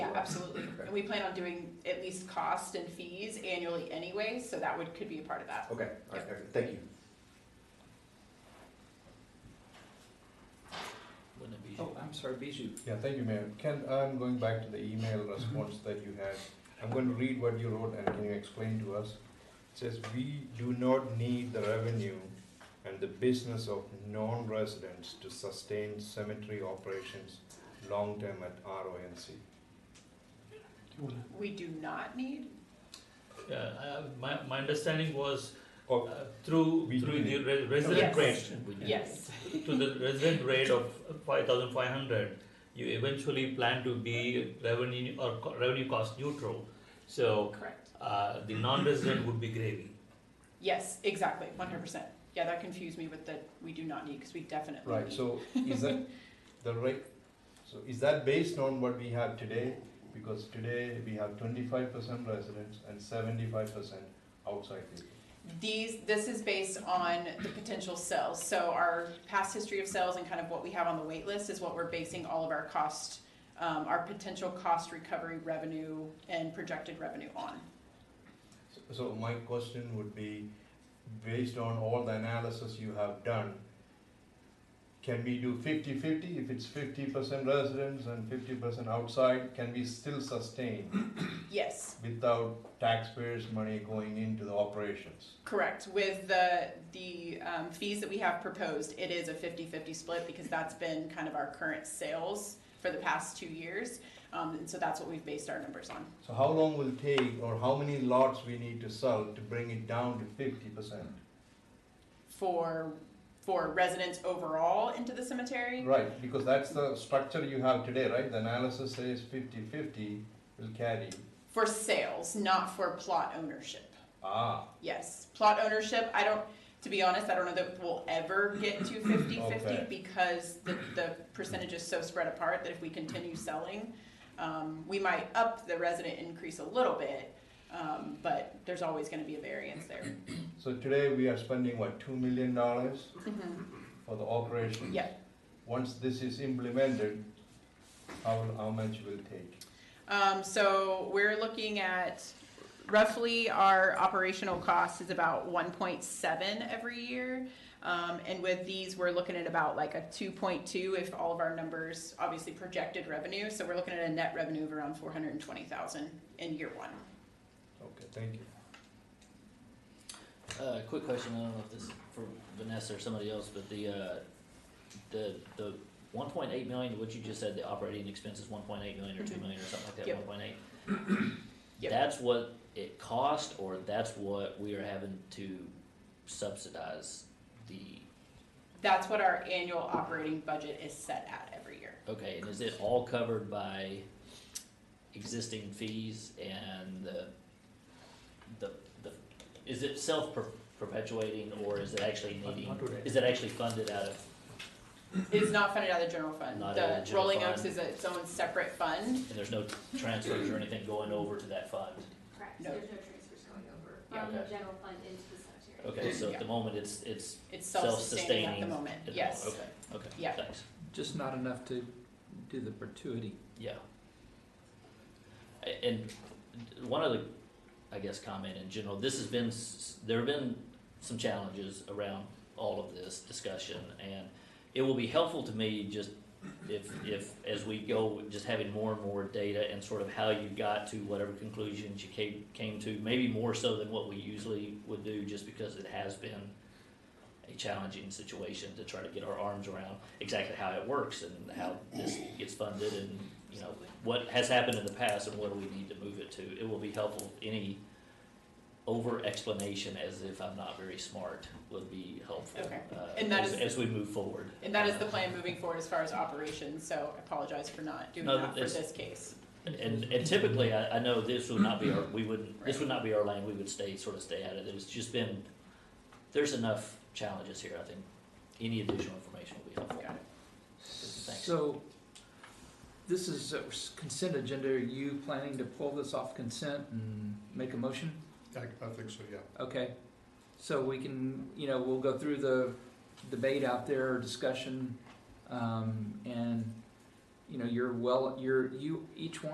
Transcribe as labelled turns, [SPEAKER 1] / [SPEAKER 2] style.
[SPEAKER 1] Yeah, absolutely. And we plan on doing at least cost and fees annually anyway, so that would, could be a part of that.
[SPEAKER 2] Okay, all right, excellent. thank you.
[SPEAKER 3] Wouldn't it be?
[SPEAKER 4] Oh, I'm sorry, Bijou.
[SPEAKER 5] Yeah, thank you, Mayor. Ken, I'm going back to the email response that you had. I'm going to read what you wrote and can you explain to us? It says, "We do not need the revenue and the business of non-residents to sustain cemetery operations long-term at RONC."
[SPEAKER 1] We do not need,
[SPEAKER 3] Yeah, uh, my, my understanding was
[SPEAKER 5] Or
[SPEAKER 3] uh, through,
[SPEAKER 5] We do
[SPEAKER 3] through the
[SPEAKER 5] need-
[SPEAKER 3] re- resident
[SPEAKER 1] Yes.
[SPEAKER 3] rate,
[SPEAKER 1] yes,
[SPEAKER 3] to the resident rate of five thousand five hundred, you eventually plan to be revenue or co- revenue cost neutral. So,
[SPEAKER 1] correct.
[SPEAKER 3] uh, the non-resident would be gravy.
[SPEAKER 1] Yes, exactly, one hundred percent. Yeah, that confused me with the, we do not need, because we definitely
[SPEAKER 5] Right,
[SPEAKER 1] need.
[SPEAKER 5] so is that the rate, so is that based on what we have today? Because today we have twenty-five percent residents and seventy-five percent outside people.
[SPEAKER 1] These, this is based on the potential sales, so our past history of sales and kind of what we have on the wait list is what we're basing all of our cost, um, our potential cost recovery revenue and projected revenue on.
[SPEAKER 5] So my question would be, based on all the analysis you have done, can we do fifty-fifty? If it's fifty percent residents and fifty percent outside, can we still sustain
[SPEAKER 1] Yes.
[SPEAKER 5] without taxpayers' money going into the operations?
[SPEAKER 1] Correct. With the, the um, fees that we have proposed, it is a 50-50 split because that's been kind of our current sales for the past two years. Um, And so that's what we've based our numbers on.
[SPEAKER 5] So how long will it take, or how many lots we need to sell to bring it down to fifty percent?
[SPEAKER 1] For, for residents overall into the cemetery,
[SPEAKER 5] Right, because that's the structure you have today, right? The analysis says fifty-fifty will carry.
[SPEAKER 1] for sales, not for plot ownership.
[SPEAKER 5] Ah,
[SPEAKER 1] Yes, plot ownership, I don't, to be honest, I don't know that we'll ever get to 50/50
[SPEAKER 5] Okay.
[SPEAKER 1] because the, the percentage is so spread apart that if we continue selling, um, we might up the resident increase a little bit, um, but there's always gonna be a variance there.
[SPEAKER 5] so today we are spending, what, two million dollars?
[SPEAKER 1] Mhm.
[SPEAKER 5] for the operation.
[SPEAKER 1] Yeah.
[SPEAKER 5] Once this is implemented, how, how much will it take?
[SPEAKER 1] Um, so we're looking at roughly our operational cost is about one point seven every year. Um, and with these, we're looking at about like a two point two if all of our numbers, obviously projected revenue. So we're looking at a net revenue of around four hundred and twenty thousand in year one.
[SPEAKER 5] Okay, thank you.
[SPEAKER 4] Uh, quick question, I don't know if this is for Vanessa or somebody else, but the, uh, the, the one point eight million, what you just said, the operating expenses, one point eight million or two
[SPEAKER 1] Mhm.
[SPEAKER 4] million or something like that,
[SPEAKER 1] Yep.
[SPEAKER 4] one point eight?
[SPEAKER 1] Yep.
[SPEAKER 4] That's what it cost, or that's what we are having to subsidize the,
[SPEAKER 1] That's what our annual operating budget is set at every year.
[SPEAKER 4] okay, and is it all covered by existing fees and the, the, the, is it self-perpetuating, or is it actually needing?
[SPEAKER 3] Not today.
[SPEAKER 4] Is it actually funded out of,
[SPEAKER 1] It is not funded out of the general fund.
[SPEAKER 4] Not out of
[SPEAKER 1] The
[SPEAKER 4] the general
[SPEAKER 1] Rolling
[SPEAKER 4] fund.
[SPEAKER 1] Oaks is its own separate fund.
[SPEAKER 4] and there's no transfers or anything going over to that fund?
[SPEAKER 6] Correct,
[SPEAKER 1] No.
[SPEAKER 6] there's no transfers going over
[SPEAKER 4] Yeah.
[SPEAKER 6] from the general fund into the cemetery.
[SPEAKER 4] Okay, so at the moment, it's, it's.
[SPEAKER 1] It's self-sustaining at the
[SPEAKER 4] Self-sustaining
[SPEAKER 1] moment,
[SPEAKER 4] at the moment,
[SPEAKER 1] yes.
[SPEAKER 4] Okay, okay,
[SPEAKER 1] Yeah.
[SPEAKER 4] thanks,
[SPEAKER 3] Just not enough to do the perpetuity.
[SPEAKER 4] yeah. A- And one other, I guess, comment in general, this has been, s- there have been some challenges around all of this discussion, and it will be helpful to me just if, if, as we go, just having more and more data and sort of how you got to whatever conclusions you came, came to, maybe more so than what we usually would do, just because it has been a challenging situation to try to get our arms around exactly how it works and how this gets funded and, you know, what has happened in the past and what do we need to move it to. It will be helpful, any over explanation as if I'm not very smart would be helpful.
[SPEAKER 1] Okay.
[SPEAKER 4] uh,
[SPEAKER 1] And that
[SPEAKER 4] as-
[SPEAKER 1] is-
[SPEAKER 4] As we move forward.
[SPEAKER 1] And that is the
[SPEAKER 4] Uh,
[SPEAKER 1] plan moving forward as far as operations, so I apologize for not doing
[SPEAKER 4] No,
[SPEAKER 1] that for
[SPEAKER 4] it's-
[SPEAKER 1] this case.
[SPEAKER 4] And, and typically, I, I know this would not be our, we wouldn't, this would not be our lane, we would stay, sort of stay out of it, it's just been, there's enough challenges here, I think, any additional information would be helpful.
[SPEAKER 1] Got it.
[SPEAKER 4] Thanks.
[SPEAKER 3] So, this is a consent agenda, are you planning to pull this off consent and make a motion?
[SPEAKER 7] I, I think so, yeah.
[SPEAKER 3] Okay, so we can, you know, we'll go through the debate out there, discussion, um, and, you know, you're well, you're, you, each one